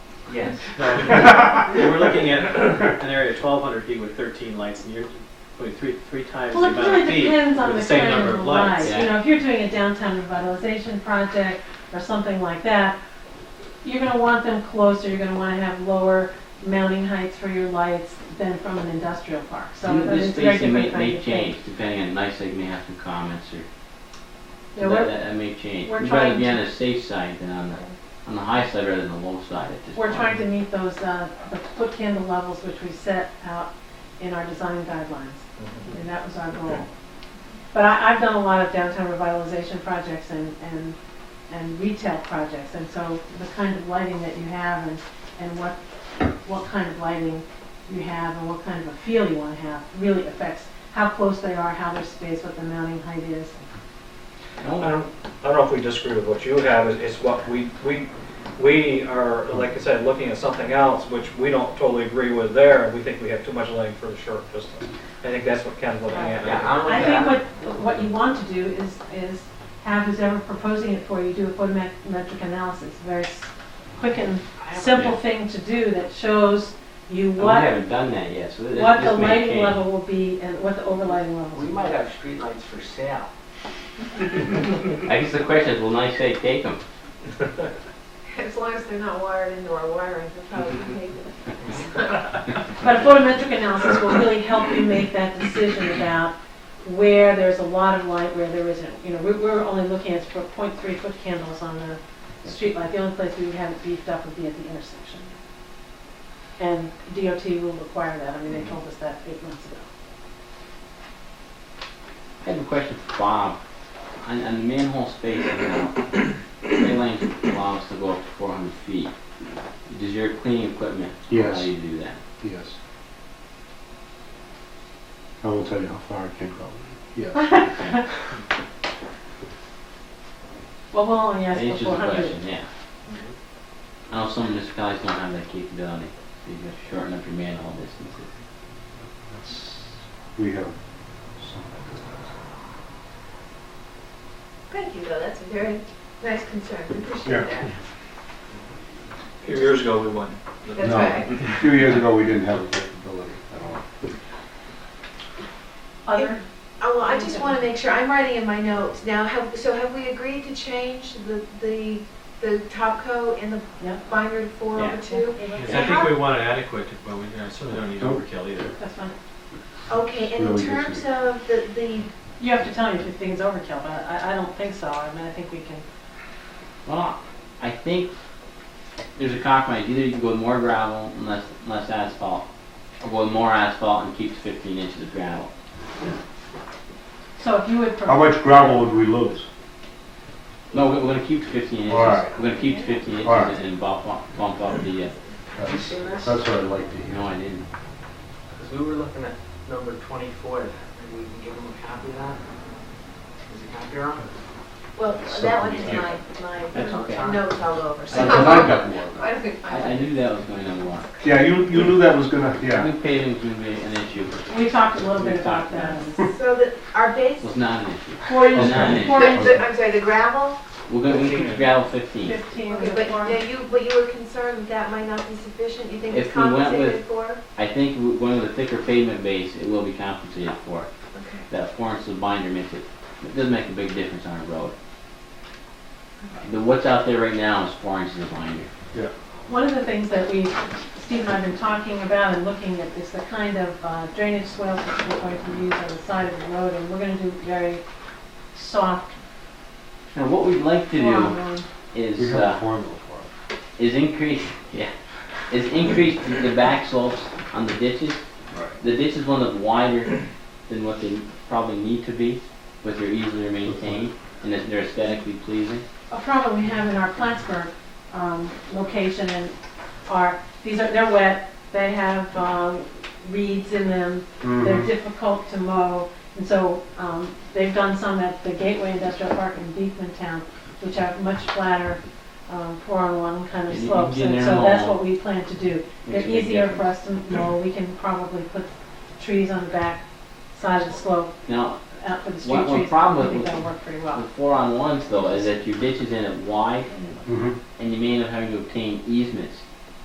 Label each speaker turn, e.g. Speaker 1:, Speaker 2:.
Speaker 1: Yes.
Speaker 2: We're looking at an area of 1,200 feet with 13 lights, and you're putting three, three times
Speaker 3: Well,
Speaker 2: the
Speaker 3: it
Speaker 2: amount
Speaker 3: really
Speaker 2: of feet
Speaker 3: depends on
Speaker 2: with the
Speaker 3: the
Speaker 2: same
Speaker 3: kind
Speaker 2: number
Speaker 3: of
Speaker 2: of lights.
Speaker 3: light. You know, if you're doing a downtown revitalization project or something like that, you're gonna want them closer, you're gonna wanna have lower mounting heights for your lights than from an industrial park. So
Speaker 1: This
Speaker 3: it's very
Speaker 1: thing may,
Speaker 3: different kind
Speaker 1: may
Speaker 3: of thing.
Speaker 1: change, depending on, NICEAG may have some comments or,
Speaker 3: Yeah,
Speaker 1: that,
Speaker 3: we're,
Speaker 1: that that may change.
Speaker 3: we're
Speaker 1: We'd rather
Speaker 3: trying
Speaker 1: be
Speaker 3: to-
Speaker 1: on the safe side than on the, on the high side rather than the low side at this point.
Speaker 3: we're trying to meet those, uh, the foot candle levels which we set out in our design guidelines. And that was our goal. But I, I've done a lot of downtown revitalization projects and, and, and retail projects, and so the kind of lighting that you have and, and what, what kind of lighting you have and what kind of a feel you wanna have really affects how close they are, how they're spaced, what the mounting height is.
Speaker 1: No,
Speaker 4: I don't, I don't know if we disagree with what you have, it's- it's what we, we, we are, like I said, looking at something else, which we don't totally agree with there, and we think we have too much lighting for the short distance. I think that's what Ken's looking at.
Speaker 5: Yeah, I'm
Speaker 3: I think what, what you want to do is, is have who's ever proposing it for you do a photometric analysis, very s- quick and simple thing to do that shows you
Speaker 1: We
Speaker 3: what
Speaker 1: haven't done that yet, so this, this may
Speaker 3: what
Speaker 1: change.
Speaker 3: the lighting level will be and what the overlighting level
Speaker 5: We
Speaker 3: will
Speaker 5: might have streetlights for sale.
Speaker 1: I guess the question is, will NICEAG take them?
Speaker 6: As long as they're not wired into our wiring, they're probably taken.
Speaker 3: be. But a photometric analysis will really help you make that decision about where there's a lot of light, where there isn't. You know, we- we're only looking at for 0.3 foot candles on the streetlight. The only place we would have it beefed up would be at the intersection. And DOT will require that. I mean, they told us that eight months ago.
Speaker 1: I have a question for Bob. On, on the manhole space now, Gray Lane allows to go up to four hundred feet. Does your cleaning equipment allow
Speaker 7: Yes.
Speaker 1: you to do that?
Speaker 7: Yes. I won't tell you how far I can go. Yes.
Speaker 3: Well, we'll only
Speaker 1: That
Speaker 3: ask for
Speaker 1: answers the
Speaker 3: 400.
Speaker 1: question, yeah. I know some municipalities don't have that capability, so you have to shorten up your manhole distances.
Speaker 7: That's- We have some.
Speaker 6: Thank you, though, that's a very nice concern, We appreciate
Speaker 7: Yeah.
Speaker 6: that.
Speaker 4: A few years ago, we won.
Speaker 6: That's
Speaker 7: No.
Speaker 6: right.
Speaker 7: A few years ago, we didn't have a capability at all.
Speaker 3: Other?
Speaker 6: Oh, well, I just want to make sure, I'm writing in my notes now, have, so have we agreed to change the, the, the top coat and the
Speaker 3: Yeah.
Speaker 6: binder to four
Speaker 1: Yeah.
Speaker 6: over two?
Speaker 2: And I think we want it adequate, but we uh, certainly don't need
Speaker 7: Nope.
Speaker 2: overkill either.
Speaker 3: That's fine.
Speaker 6: Okay, and in
Speaker 7: Really good
Speaker 6: terms
Speaker 7: shape.
Speaker 6: of the, the,
Speaker 3: You have to tell me if you think it's overkill, but I, I don't think so. I mean, I think we can
Speaker 1: Well, I think there's a compromise. Either you can go with more gravel and less, less asphalt, or go with more asphalt and keep the fifteen inches of gravel.
Speaker 3: So if you would,
Speaker 7: How
Speaker 3: pro-
Speaker 7: much gravel would we lose?
Speaker 1: No, we're, we're gonna keep to 15 inches.
Speaker 7: Alright.
Speaker 1: We're gonna keep to 15 inches
Speaker 7: Alright.
Speaker 1: and bump, up- bump up the. Uh,
Speaker 5: Have you seen this?
Speaker 7: That's what I'd like to hear.
Speaker 1: no, I didn't.
Speaker 5: Because we were looking at number 24, maybe we can give them a copy of that? Is it copy on?
Speaker 6: well,
Speaker 7: So,
Speaker 6: that one is
Speaker 7: yeah.
Speaker 6: my,
Speaker 1: That's okay.
Speaker 6: my notes all over, so.
Speaker 7: And I got more of that.
Speaker 6: I don't think-
Speaker 1: I, I knew that was going to work.
Speaker 7: Yeah, you, you knew that was gonna,
Speaker 1: I
Speaker 7: yeah.
Speaker 1: think paving's gonna be an issue. It
Speaker 3: we talked a little
Speaker 1: We
Speaker 3: bit about
Speaker 1: talked about
Speaker 3: that.
Speaker 6: So that our base,
Speaker 1: was not an issue.
Speaker 3: Four
Speaker 1: Well,
Speaker 3: inch,
Speaker 1: nine
Speaker 3: four
Speaker 6: the-
Speaker 3: inch,
Speaker 6: the- I'm sorry, the gravel?
Speaker 1: We're gonna, we're gonna keep the gravel 15.
Speaker 3: fifteen,
Speaker 6: Okay,
Speaker 3: with a
Speaker 6: but
Speaker 3: four.
Speaker 6: now you, but you were concerned that might not be sufficient, you think it's
Speaker 1: If we went with-
Speaker 6: compensated for?
Speaker 1: I think w- going with a thicker pavement base, it will be compensated for.
Speaker 6: Okay.
Speaker 1: That four inches of binder makes it, it doesn't make a big difference on a road. The, what's out there right now is four inches of binder.
Speaker 3: One of the things that we, Steve and I have been talking about and looking at is the kind of uh, drainage swales that we're going to use on the side of the road, and we're gonna do very soft.
Speaker 1: Now, what we'd like to
Speaker 3: form,
Speaker 1: do
Speaker 3: and
Speaker 7: We
Speaker 1: is,
Speaker 7: have a
Speaker 1: uh,
Speaker 7: formula for it.
Speaker 1: is increase, yeah, is increase the- the back slopes on the ditches
Speaker 7: Right.
Speaker 1: The ditch is one that's wider than what they probably need to be, but they're easier maintained and that they're aesthetically pleasing.
Speaker 3: A problem we have in our Plattsburgh, um, location and are, these are, they're wet, they have, um, reeds in them, They're
Speaker 7: Mhm.
Speaker 3: difficult to mow, and so um, they've done some at the Gateway Industrial Park in Beekman Town, which have much flatter um, four-on-one kind of
Speaker 1: And you can
Speaker 3: slopes,
Speaker 1: get
Speaker 3: and
Speaker 1: in
Speaker 3: so
Speaker 1: there
Speaker 3: that's
Speaker 1: and
Speaker 3: what we plan to do. They're
Speaker 1: Makes a big
Speaker 3: easier for
Speaker 1: difference.
Speaker 3: us to mow, we can probably put trees on the back side of the slope,
Speaker 1: Now,
Speaker 3: out for the street
Speaker 1: One- one
Speaker 3: trees,
Speaker 1: problem
Speaker 3: I think
Speaker 1: with-
Speaker 3: that'll work pretty
Speaker 1: the
Speaker 3: well.
Speaker 1: four on ones though, is that your ditch is in it wide
Speaker 7: Mhm.
Speaker 1: and you may end up having to obtain easements